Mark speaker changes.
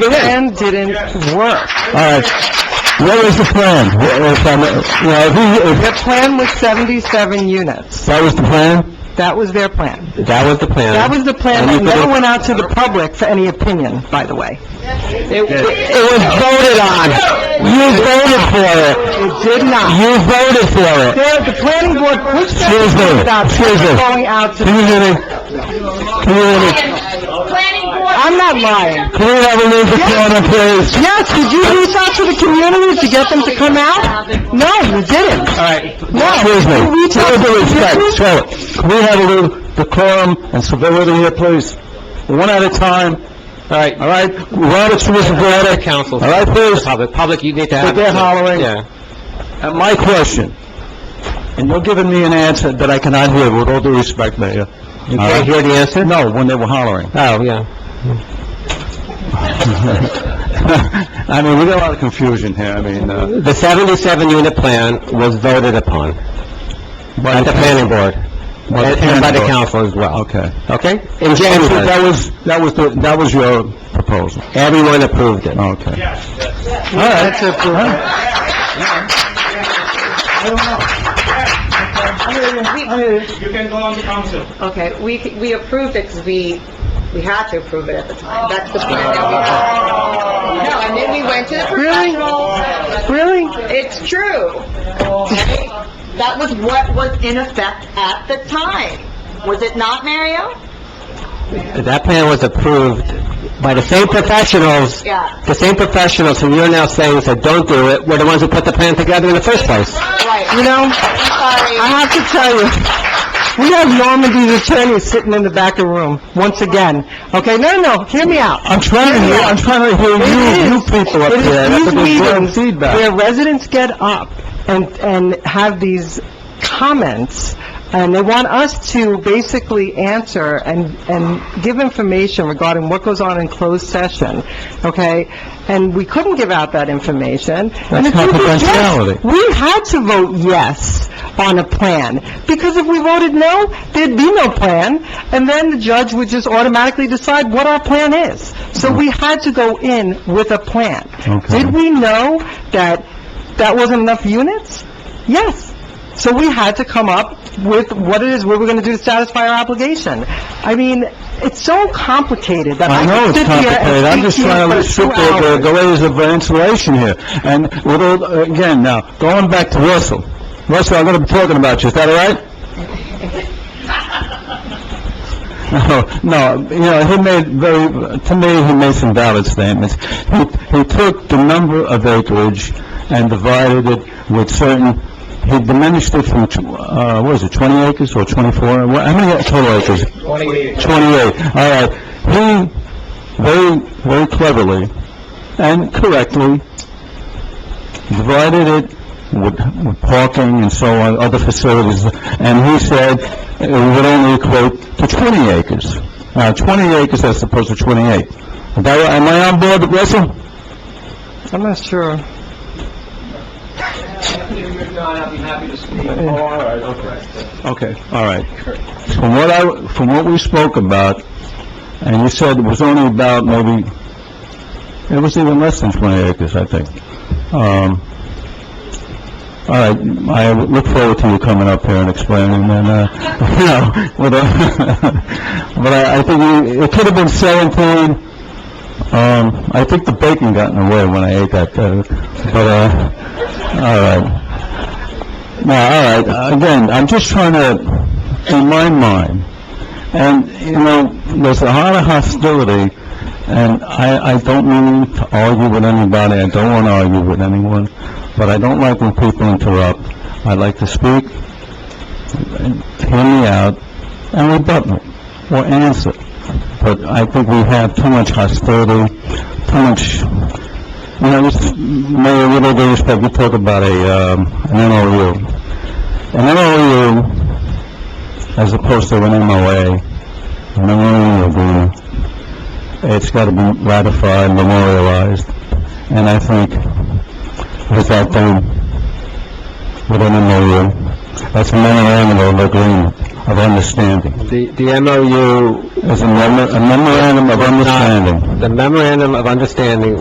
Speaker 1: The
Speaker 2: plan didn't work.
Speaker 1: All right. What was the plan? What was, um, well, if we-
Speaker 2: The
Speaker 1: if
Speaker 2: plan was 77 units.
Speaker 1: that was the plan?
Speaker 2: That was their plan.
Speaker 1: That was the plan.
Speaker 2: That was the plan that
Speaker 1: And you
Speaker 2: never
Speaker 1: put
Speaker 2: went out to the public for any opinion, by the way. It
Speaker 1: It It was voted on. You voted for it.
Speaker 2: it did not.
Speaker 1: You voted for it.
Speaker 2: There- The planning board pushed that
Speaker 1: Excuse me.
Speaker 2: plan out,
Speaker 1: Excuse me.
Speaker 2: going out to...
Speaker 1: Can you hear me? Can you hear me?
Speaker 3: Planning board.
Speaker 2: I'm not lying.
Speaker 1: Can we have a move to corner, please?
Speaker 2: Yes, did you reach out to the community to get them to come out? No, you didn't.
Speaker 1: All right.
Speaker 2: No.
Speaker 1: Excuse me.
Speaker 2: You reach out
Speaker 1: With due
Speaker 2: to the
Speaker 1: respect,
Speaker 2: community?
Speaker 1: show it. Can we have a move to quorum and civility here, please? One at a time.
Speaker 4: All right,
Speaker 1: All right? Robert's rules of order.
Speaker 4: council,
Speaker 1: All right, please?
Speaker 4: public, public, you need to
Speaker 1: But
Speaker 4: have...
Speaker 1: they're hollering.
Speaker 4: Yeah.
Speaker 1: At my question, and you're giving me an answer that I cannot hear, with all due respect, Mayor.
Speaker 4: You can't hear the answer?
Speaker 1: No, when they were hollering.
Speaker 4: Oh, yeah.
Speaker 1: I mean, we got a lot of confusion here, I mean, uh...
Speaker 4: The 77-unit plan was voted upon at the planning board and and by the council as well.
Speaker 1: Okay.
Speaker 4: Okay? In
Speaker 1: And so
Speaker 4: January,
Speaker 1: that was, that was, the that was your proposal?
Speaker 4: everyone approved it.
Speaker 1: Okay. Yes, yes. All right.
Speaker 5: You can go on the council.
Speaker 6: Okay, we, we approved it because we, we had to approve it at the time. That's the plan that we had. No, and then we went to the professionals.
Speaker 2: Really?
Speaker 6: It's true. That was what was in effect at the time. Was it not, Mario?
Speaker 4: That plan was approved by the same professionals,
Speaker 6: Yeah,
Speaker 4: the same professionals who you're now saying said, "Don't do it," were the ones who put the plan together in the first place.
Speaker 6: right.
Speaker 2: You know, I
Speaker 6: I'm sorry.
Speaker 2: have to tell you, we have Normandy's attorney sitting in the back of the room, once again. Okay, no, no, no, hear me out.
Speaker 1: I'm trying to hear, I'm trying to hear Uh, you, you
Speaker 2: It is.
Speaker 1: people up there. That's
Speaker 2: It is
Speaker 1: what they're doing
Speaker 2: these meetings
Speaker 1: feedback.
Speaker 2: where residents get up and, and have these comments, and they want us to basically answer and, and give information regarding what goes on in closed session, okay? And we couldn't give out that information. And
Speaker 1: That's
Speaker 2: if we did yes,
Speaker 1: confidentiality.
Speaker 2: We had to vote yes on a plan, because if we voted no, there'd be no plan, and then the judge would just automatically decide what our plan is. So we had to go in with a plan.
Speaker 1: Okay.
Speaker 2: Did we know that that wasn't enough units? Yes. So we had to come up with what it is we were going to do to satisfy our obligation. I mean, it's so complicated that
Speaker 1: I
Speaker 2: I
Speaker 1: know
Speaker 2: could
Speaker 1: it's
Speaker 2: sit here
Speaker 1: complicated, I'm
Speaker 2: and
Speaker 1: just
Speaker 2: speak to
Speaker 1: trying to
Speaker 2: you for two
Speaker 1: restrict the, the-
Speaker 2: hours.
Speaker 1: the ways of insulation here. And with all, again, now, going back to Russell. Russell, I'm gonna be talking about you, is that all right? Oh, No, no, you know, he made very, to me, he made some valid statements. He, he took the number of acreage and divided it with certain, he diminished it from, tw- uh, what is it, 20 acres or 24? What- How many total acres? 28, all right. He very, very cleverly and correctly divided it with with parking and so on, other facilities, and he said it would only equate to 20 acres. Now, 20 acres as opposed to 28. Is that right? Am I on board, with Russell?
Speaker 2: I'm not sure.
Speaker 1: Okay, all right. From what I, from what we spoke about, and you said it was only about maybe, it was even less than 20 acres, I think. Um, all right, I look forward to you coming up here and explaining, and, uh, you know, with a- but I, I think you- it could have been 17. Um, I think the bacon got in the way when I ate that, uh, but, uh, all right. No, all right, again, I'm just trying to, in my mind, and, you know, there's a lot of hostility, and I, I don't mean to argue with anybody, I don't want to argue with anyone, but I don't like when people interrupt. I like to speak, and hear me out, and rebut me, or answer. But I think we have too much hostility, too much you know, this, Mayor, with all due respect, we talk about a, um, an MOU. An MOU, as opposed to an MOA, an MOU agreement, it's gotta be ratified, memorialized, and I think with that done, with an MOU, that's a memorandum of agreement. of understanding.
Speaker 4: The, the MOU,
Speaker 1: It's a memo- a memorandum of understanding.
Speaker 4: the memorandum of understanding